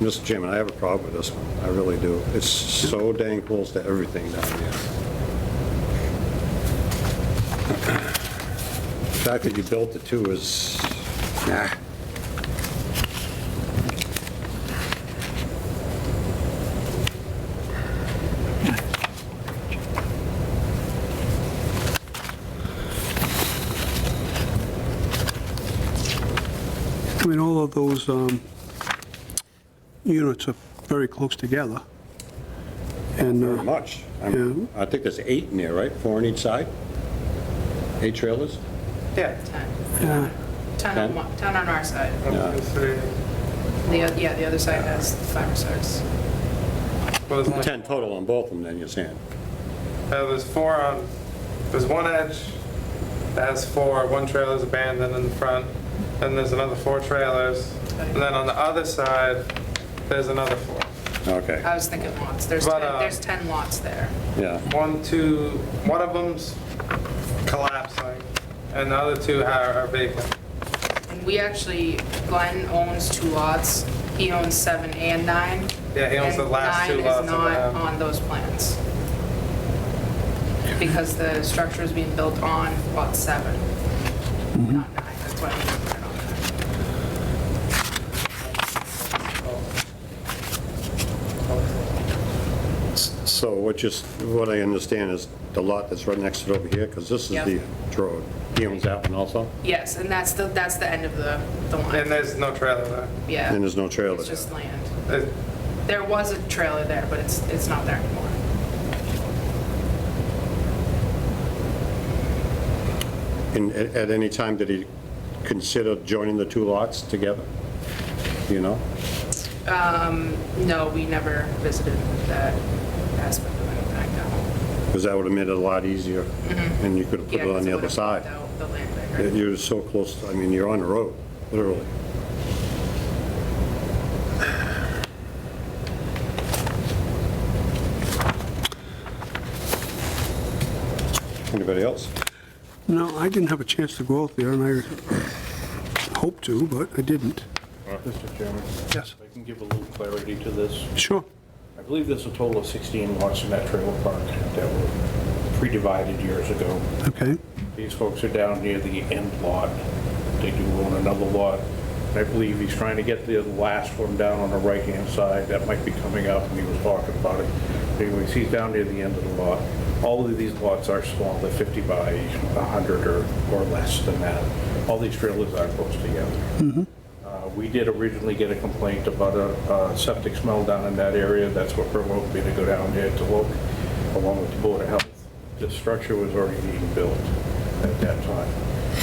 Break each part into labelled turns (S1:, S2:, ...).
S1: Mr. Chairman, I have a problem with this one. I really do. It's so dang close to everything down there. The fact that you built it too is, nah.
S2: I mean, all of those um, units are very close together. And,
S1: Very
S2: uh,
S1: much. I'm- I think there's eight in there, right? Four on each side? Eight trailers?
S3: Yeah.
S2: yeah,
S3: Ten on, one- ten on our side.
S1: Yeah.
S3: The,
S1: was gonna
S3: oth- yeah, the other side has five or six.
S4: Well, there's, only,
S1: 10 total on both of them, then you're saying?
S4: uh, there's four on, there's one edge that has four, one trailer's abandoned in the front, then there's another four trailers, and then on the other side, there's another four.
S1: Okay,
S3: I was thinking lots. There's,
S4: But,
S3: ten-
S4: uh,
S3: there's 10 lots there.
S1: yeah.
S4: One, two, one of them's collapsing, and the other two are are vacant.
S3: And we actually, Glenn owns two lots. He owns seven and nine.
S4: Yeah, he owns
S3: and
S4: the last two
S3: Nine
S4: lots
S3: is
S4: that
S3: not
S4: I have.
S3: on those plans. Because the structure is being built on lot seven. Not nine, that's what I'm looking at.
S1: So what you, what I understand is the lot that's right next to it over here, because this is
S3: Yep.
S1: the road. He owns that one also,
S3: Yes, and that's the, that's the end of the, the
S4: And
S3: line.
S4: there's no trailer there.
S3: Yeah.
S1: and there's no trailer
S3: It's
S1: there.
S3: just land.
S4: There's-
S3: There was a trailer there, but it's, it's not there anymore.
S1: And a- at any time, did he consider joining the two lots together? Do You know?
S3: No, we never visited that aspect of it back now.
S1: Because that would have made it a lot easier, and you could have put
S3: Mm-hmm. Yeah,
S1: it
S3: 'cause
S1: on the other
S3: would've
S1: side.
S3: blocked out The land
S1: It-
S3: bigger.
S1: You're so close, I mean, you're on the road, literally. Anybody else?
S2: no, I didn't have a chance to go out there, and I hoped to, but I didn't.
S5: Mr. Chairman,
S2: Yes,
S5: if I can give a little clarity to this.
S2: sure.
S5: I believe there's a total of 16 lots in that trailer park that were pre-divided years ago.
S2: Okay,
S5: These folks are down near the end lot. They do own another lot. I believe he's trying to get the last one down on the right-hand side. That might be coming up, and he was talking about it. Anyways, he's down near the end of the lot. All of these lots are small, they're 50 by 100 or, or less than that. All these trailers are close together. Uh, We did originally get a complaint about a uh, septic smell down in that area. That's what provoked me to go down there to look, along with the Board of Health. The structure was already being built at that time.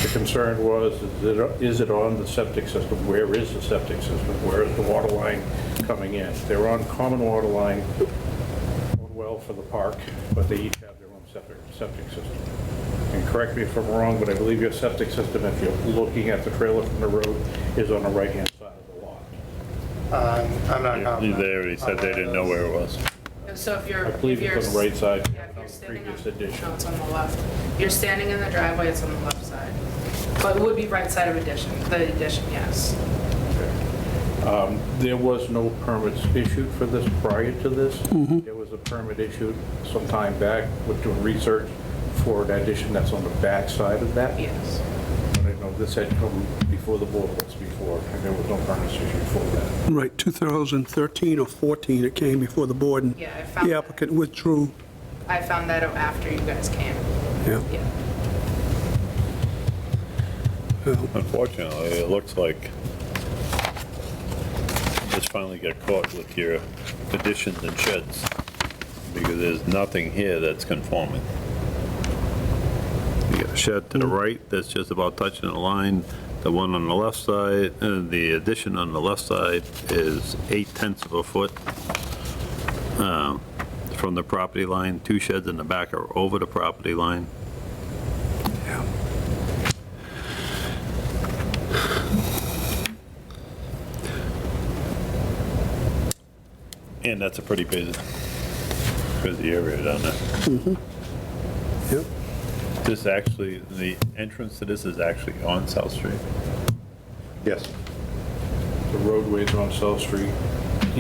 S5: The concern was, is it- is it on the septic system? Where is the septic system? Where is the water line coming in? They're on common water line, one well for the park, but they each have their own separate septic system. And correct me if I'm wrong, but I believe your septic system, if you're looking at the trailer from the road, is on the right-hand side of the lot.
S4: um, I'm not
S6: They
S4: confident.
S6: already said they didn't know where it was.
S3: So if you're,
S5: I
S3: if
S5: believe
S3: you're.
S5: it's on the right side,
S3: Yeah, if you're standing on,
S5: previous
S3: no,
S5: addition.
S3: it's on the left. You're standing in the driveway, it's on the left side. But it would be right side of addition, the addition, yes.
S5: Um, There was no permits issued for this prior to this. There was a permit issued some time back with doing research for an addition that's on the back side of that.
S3: Yes.
S5: But I know this had come before the board was before, and there was no permits issued for that.
S2: right, 2013 or 14 it came before the board, and
S3: Yeah, I found
S2: the
S3: that.
S2: applicant withdrew.
S3: I found that out after you guys came.
S2: Yeah,
S3: Yeah.
S2: well,
S6: Unfortunately, it looks like you just finally got caught with your additions and sheds because there's nothing here that's conforming. You got a shed to the right that's just about touching the line. The one on the left side, uh, the addition on the left side is eight tenths of a foot um, from the property line. Two sheds in the back are over the property line.
S2: yeah.
S6: And that's a pretty busy, busy area down there.
S2: Yep.
S6: This actually, the entrance to this is actually on South Street.
S1: Yes.
S5: The roadways on South Street,